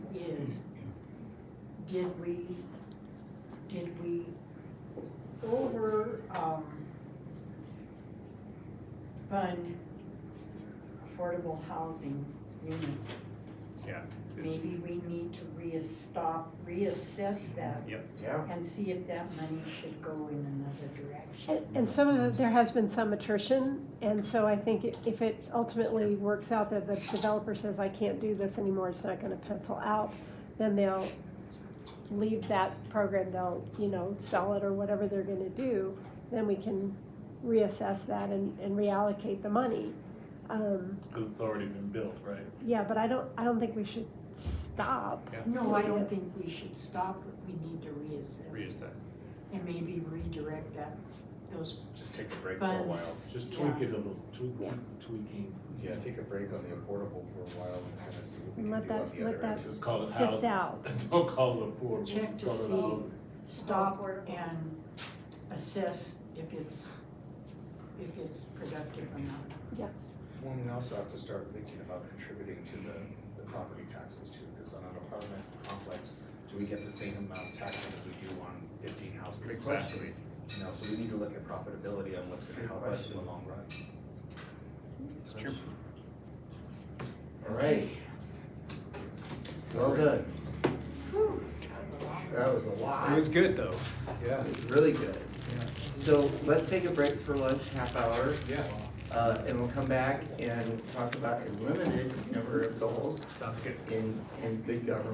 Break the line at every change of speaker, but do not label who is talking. Did we, did we go over, um, fund affordable housing units?
Yeah.
Maybe we need to reas- stop, reassess that
Yeah,
and see if that money should go in another direction.
And- And some of the, there has been some attrition, and so I think i- if it ultimately works out that the developer says, I can't do this anymore, it's not gonna pencil out, then they'll leave that program, they'll, you know, sell it or whatever they're gonna do, then we can reassess that and, and reallocate the money. Um,
Because it's already been built, right?
yeah, but I don't, I don't think we should stop.
No, I don't think we should stop, but we need to reassess
Reassess.
and maybe redirect that, those
just take a break for a while.
funds.
Just
yeah.
tweak it a little, tweak, tweaking,
Yeah, take a break on the affordable for a while and kind of see what we
And
can
let
do on
that-
the
let
other end.
just call it
Sift
housing.
out.
Don't call it affordable,
Uh,
just
Check to
call it
see.
housing.
stop
Affordable.
and assess if it's, if it's productive or not.
Yes,
Well, we also have to start thinking about contributing to the, the property taxes too, because on an apartment complex, do we get the same amount of taxes as we do on fifteen houses?
Exactly.
You know, so we need to look at profitability on what's gonna help us in the long run.
True.
All right. Well done. That was a
It
lot.
was good though. Yeah.
It's really good. So let's take a break for lunch, half hour,
Yeah.
uh, and we'll come back and talk about a limited number of goals
Sounds good.
in, in good government.